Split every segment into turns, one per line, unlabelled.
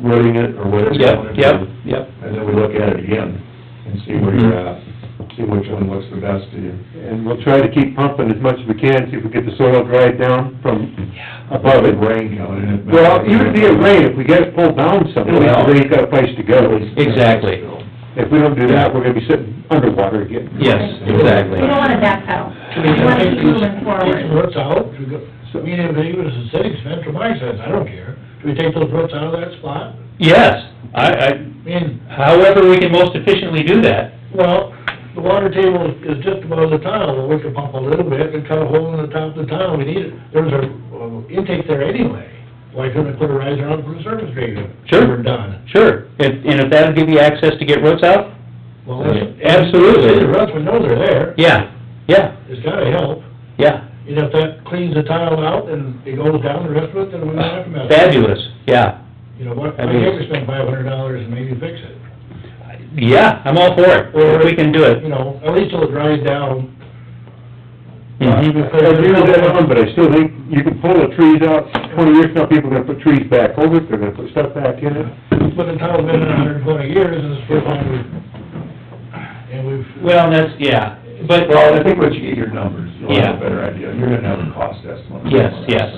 wording it or what it's
Yep,
going to
yep,
be.
yep.
And then we look at it again and see where you're at,
Mm-hmm.
see which one looks the best to you.
And we'll try to keep pumping as much as we can, see if we get the soil dried down from above it.
Rain coming in.
Well, even if it rain, if we get it pulled down someplace, then you've got a place to go.
Exactly.
If we don't do that, we're gonna be sitting underwater again.
Yes, exactly.
We don't wanna backpedal, we wanna keep moving
Take the
forward.
roots out, we go- I mean, if it was a city expense, from my sense, I don't care. Do we take those roots out of that spot?
Yes, I,
I mean,
I, however we can most efficiently do that.
well, the water table is just above the tile, well, we could pump a little bit and cut a hole in the top of the tile, we need it. There's a uh, intake there anyway, why couldn't we put a riser on for the surface drainage?
Sure.
We're done.
Sure, and, and if that'd give you access to get roots out,
Well, that's-
Absolutely.
The roots, we know they're there,
yeah, yeah,
it's gotta help.
yeah.
You know, if that cleans the tile out and it goes down the rest of it, then we don't have to mess with it.
Fabulous, yeah,
You know, what,
I
I
mean-
think we spend five hundred dollars and maybe fix it.
yeah, I'm all for it, if we can do
You
it.
know, at least it'll dry down.
Mhm.
I agree with that one, but I still think you can pull the trees out, twenty years from now, people are gonna put trees back over it, they're gonna put stuff back in it.
But the tile's been in a hundred and twenty years and it's still on, and we've,
Well, that's, yeah, but,
Well, I think once you get your numbers, you'll
Yeah.
have a better idea. You're gonna have a cost estimate.
yes, yes.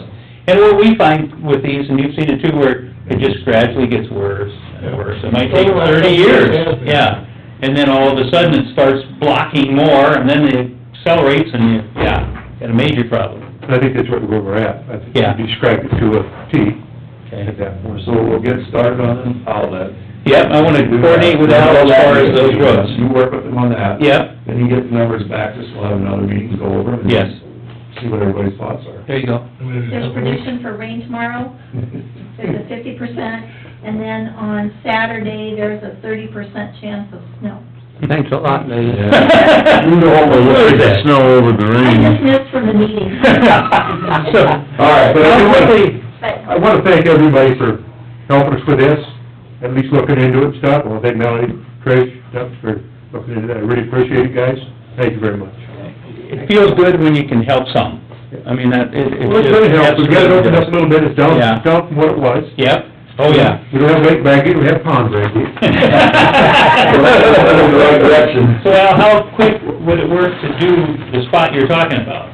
And what we find with these, and you've seen it too, where it just gradually gets worse and worse. It might take thirty years, yeah. And then all of a sudden, it starts blocking more, and then it accelerates, and you, yeah, got a major problem,
And I think that's what- where we're at. I think
Yeah.
you described it to a T
okay?
at that point.
So we'll get started on uh, an outlet.
Yep, I wanna coordinate with Al as far as those roads.
You work with them on that.
Yep,
Then you get the numbers back, just we'll have another meeting, to go over them. and
yes,
See what everybody's thoughts are.
there you go.
we've.
There's prediction for rain tomorrow, there's a fifty percent, and then on Saturday, there's a thirty percent chance of snow.
Thanks a lot, Lee.
You know what we're looking at.
snow over the
I just missed from the meeting,
All right, but I do wanna,
I
but
wanna thank everybody for helping us with this, at least looking into it and stuff. I wanna thank Melanie, Trish, Doug for looking into that. I really appreciate it, guys. Thank you very much.
It feels good when you can help some. I mean, that, it, it.
Well, it's gonna help. We've got it opened up a little bit. It's down,
Yeah.
down from what it was.
Yep, oh, yeah.
We don't have lake bracket, we have pond bracket.
in the right direction.
So Al, how quick would it work to do the spot you're talking about?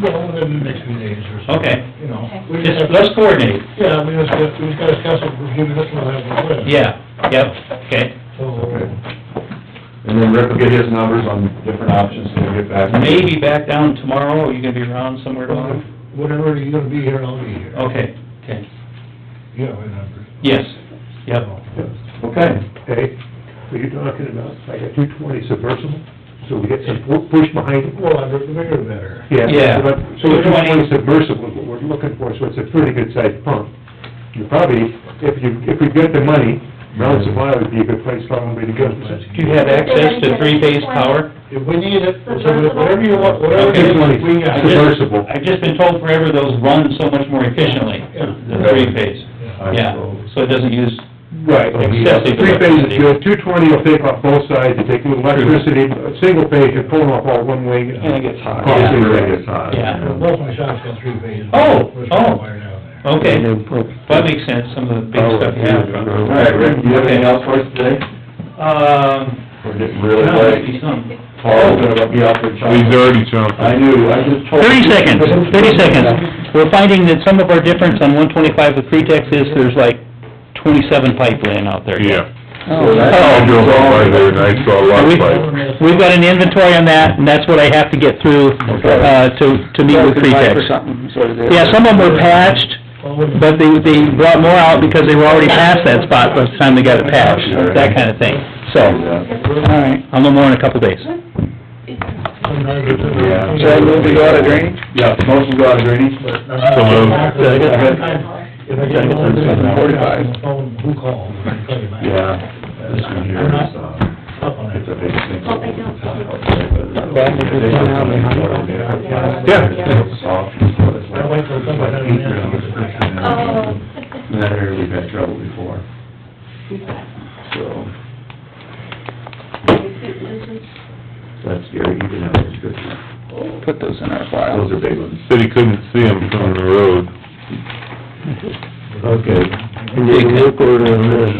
Well, within the next few days or so.
Okay.
You know,
Okay.
we
Just,
just have,
let's coordinate.
yeah, we just got, we just gotta discuss it, we're giving this one that we're with.
Yeah, yep, okay.
So,
and then Rick will get his numbers on different options, and we'll get back.
Maybe back down tomorrow, are you gonna be around somewhere tomorrow?
whenever you're gonna be here, I'll be here.
Okay, okay,
You have my number.
yes, yep.
Okay.
Hey, what you're talking about, I got two twenty submersible, so we get some pu- push behind it.
Well, the bigger the better.
Yeah.
but- So a two
220.
twenty submersible is what we're looking for, so it's a pretty good sized pump. You probably, if you, if we've got the money, Brown Supply would be a good place probably to go.
Mm-hmm. Do you have access to three-phase power?
If we need it, so whatever you want, whatever
Okay.
you want, we got. it.
Submersible.
I've just been told forever those run so much more efficiently,
Yeah.
the three-phase,
Yeah.
yeah, so it doesn't use,
Right,
Excessive
three phase
electricity.
is good, two twenty will take off both sides, you take the electricity, a single phase, you're pulling off all one wing.
and it gets hot.
Yeah.
It really gets hot.
Yeah.
Well, Both my shops got three phases.
Oh,
Which
oh.
wire down there.
Okay, that makes sense, some of the big stuff you have.
All right, Rick, do you have anything else for us today?
Um,
We're getting really
no, that'd
late.
be something.
Paul's gonna let me out for chocolate.
He's already chomping.
I knew, I just told.
Thirty seconds, thirty seconds. We're finding that some of our difference on one twenty-five with pretext is there's like twenty-seven pipe laying out there. Oh. yet.
Yeah, I drove by there and I saw a lot of lights.
We've got an inventory on that, and that's what I have to get through, uh, to, to meet with pretext. Yeah, some of them were patched, but they, they brought more out because they were already past that spot by the time they got it patched, that kind of thing. So, all right, I'll know more in a couple days.
Yeah.
Sometimes-
Should I move to go out of
drainage?
Yeah, motion go out of drainage.
So moved.
If I get one thing on the phone, who calls? I call you back.
Yeah, this one here is, uh,
Up on
it's
it.
a big thing.
Hope I don't-
I wait till somebody has an answer.
oh.
That area we've had trouble before, so, that's scary, you can have a description.
Put those in our file.
Those are big ones.
Said he couldn't see them from the road.
Okay, Dig that.